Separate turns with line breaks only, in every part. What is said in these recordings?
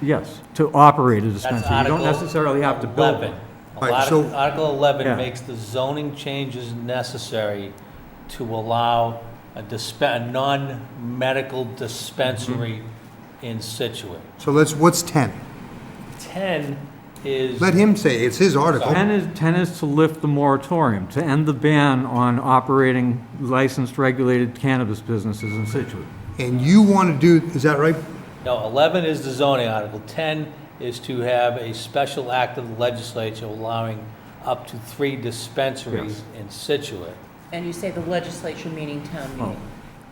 Yes, to operate a
That's
dispensary. You
Article
don't necessarily have to build one.
11.
Right,
Arti-
so-
Article 11
Yeah.
makes the zoning changes necessary to allow a disp, a non-medical dispensary
Mm-hmm.
in Situate.
So let's, what's 10?
10 is,
Let him say, it's his article.
10 is, 10 is to lift the moratorium, to end the ban on operating licensed regulated cannabis businesses in Situate.
And you want to do, is that right?
no, 11 is the zoning article. 10 is to have a special act of the legislature allowing up to three dispensaries in Situate.
And you say the legislature meaning town meeting.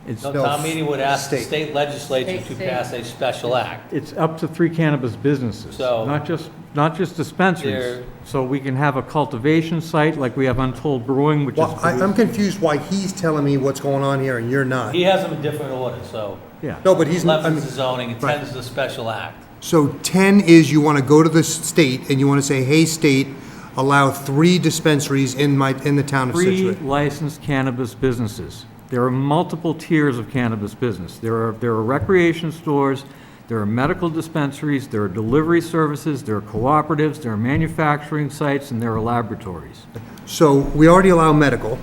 It's,
No,
No,
town meeting would ask the
state.
state legislature to
State, state.
pass a special act.
it's up to three cannabis businesses,
So-
not just, not just
They're-
dispensaries. So we can have a cultivation site, like we have Untold Brewing, which is.
Well, I- I'm
produced-
confused why he's telling me what's going on here and you're not.
He has them in different order, so
Yeah.
No, but he's, I
11
mean,
is the zoning, and
right.
10 is the special act.
so 10 is you want to go to the state and you want to say, hey, state, allow three dispensaries in my, in the town of
Three
Situate.
licensed cannabis businesses. There are multiple tiers of cannabis business. There are, there are recreation stores, there are medical dispensaries, there are delivery services, there are cooperatives, there are manufacturing sites, and there are laboratories.
So we already allow medical,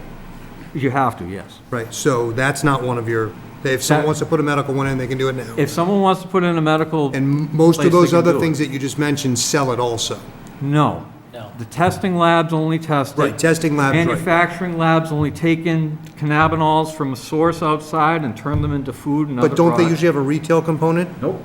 You have to, yes.
right? So that's not one of your, if someone
That-
wants to put a medical one in, they can do it now.
If someone wants to put in a medical,
And most
place,
of
they
those
can do
other
it.
things that you just mentioned sell it also.
no.
No.
The testing labs only test it.
Right, testing labs, right.
Manufacturing labs only take in cannabinoids from a source outside and turn them into food and other
But don't they
products.
usually have a retail component?
Nope.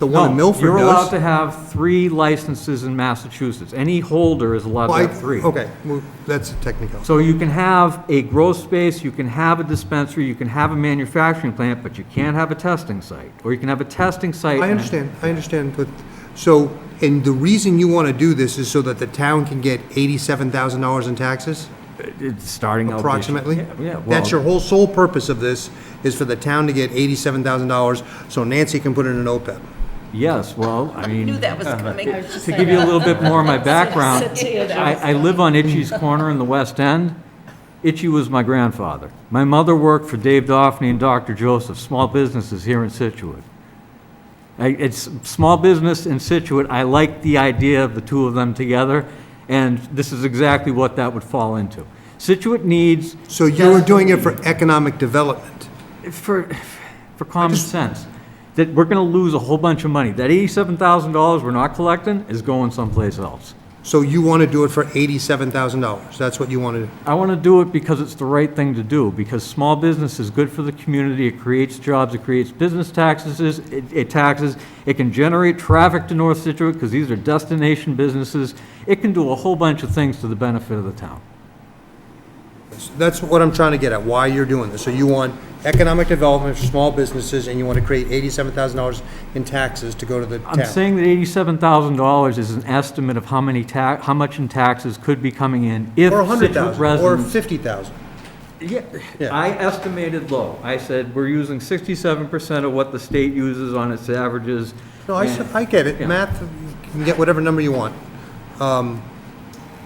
The one in
No,
Milford does.
You're allowed to have three licenses in Massachusetts. Any holder is allowed
Well, I-
to have three.
Okay, well, that's a technical.
So you can have a grow space, you can have a dispensary, you can have a manufacturing plant, but you can't have a testing site. Or you can have a testing site.
I
and-
understand, I understand, but, so, and the reason you want to do this is so that the town can get eighty-seven thousand dollars in taxes,
It's starting out.
approximately?
Yeah, well.
That's your whole sole purpose of this, is for the town to get eighty-seven thousand dollars, so Nancy can put it in an OPEB.
Yes, well, I mean.
Knew that was coming.
To give you a little bit more of my background, I, I live on Itchy's Corner in the West End. Itchy was my grandfather. My mother worked for Dave Doffney and Dr. Joseph, small businesses here in Situate. I- It's small business in Situate, I like the idea of the two of them together, and this is exactly what that would fall into. Situate needs.
So you're doing it for economic development.
For, for common sense, that we're gonna lose a whole bunch of money. That eighty-seven thousand dollars we're not collecting is going someplace else.
So you want to do it for eighty-seven thousand dollars, that's what you want to do.
I want to do it because it's the right thing to do, because small business is good for the community, it creates jobs, it creates business taxes, it it taxes, it can generate traffic to North Situate, because these are destination businesses, it can do a whole bunch of things to the benefit of the town.
That's what I'm trying to get at, why you're doing this. So you want economic development for small businesses, and you want to create eighty-seven thousand dollars in taxes to go to the town.
I'm saying that eighty-seven thousand dollars is an estimate of how many ta, how much in taxes could be coming in if
Or a hundred
Situate
thousand, or
residents
fifty thousand.
Yeah,
Yeah.
I estimated low. I said, we're using sixty-seven percent of what the state uses on its averages.
No, I, s- I get it,
Yeah.
math, you can get whatever number you want. Um,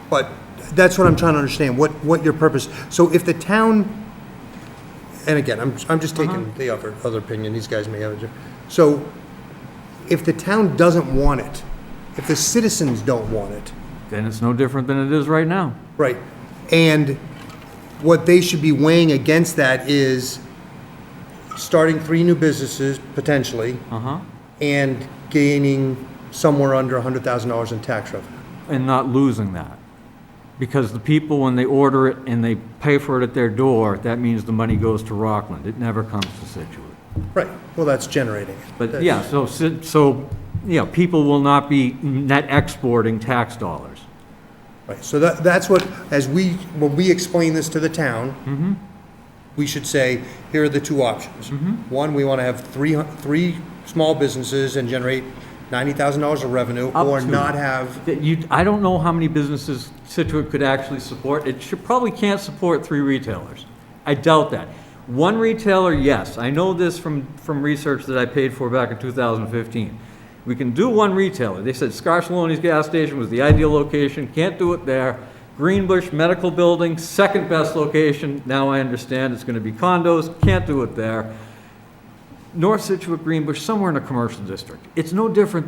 But that's what I'm trying to understand, what, what your purpose, so if the town, and again, I'm, I'm just taking
Uh-huh.
the other, other opinion, these guys may have a different. So, if the town doesn't want it, if the citizens don't want it,
Then it's no different than it is right now.
Right. And what they should be weighing against that is starting three new businesses potentially
Uh-huh.
and gaining somewhere under $100,000 in tax revenue.
And not losing that. Because the people, when they order it and they pay for it at their door, that means the money goes to Rockland. It never comes to Situate.
Right. Well, that's generating it.
But yeah, so, Sit- so, yeah, people will not be net exporting tax dollars.
Right. So that, that's what, as we, when we explain this to the town,
Mm-hmm.
we should say, here are the two options.
Mm-hmm.
One, we want to have three, hun- three small businesses and generate $90,000 of revenue
Up
or
to.
not have,
That you, I don't know how many businesses Situate could actually support. It should, probably can't support three retailers. I doubt that. One retailer, yes, I know this from, from research that I paid for back in 2015. We can do one retailer. They said Scarsaloni's gas station was the ideal location, can't do it there. Greenbush Medical Building, second best location, now I understand it's gonna be condos, can't do it there. North Situate, Greenbush, somewhere in a commercial district. It's no different